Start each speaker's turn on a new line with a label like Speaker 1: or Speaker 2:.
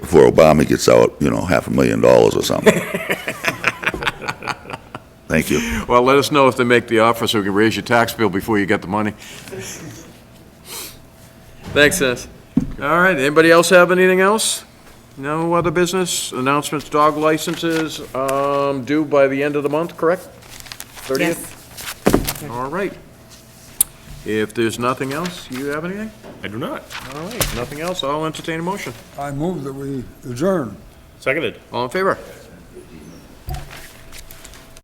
Speaker 1: before Obama gets out, you know, half a million dollars or something. Thank you.
Speaker 2: Well, let us know if they make the offer so we can raise your tax bill before you get the money. Thanks, Dennis. All right, anybody else have anything else? No other business? Announcements, dog licenses um, due by the end of the month, correct? 30th? All right. If there's nothing else, you have anything?
Speaker 3: I do not.
Speaker 2: All right, nothing else, I'll entertain a motion.
Speaker 4: I move that we adjourn.
Speaker 3: Seconded.
Speaker 2: All in favor?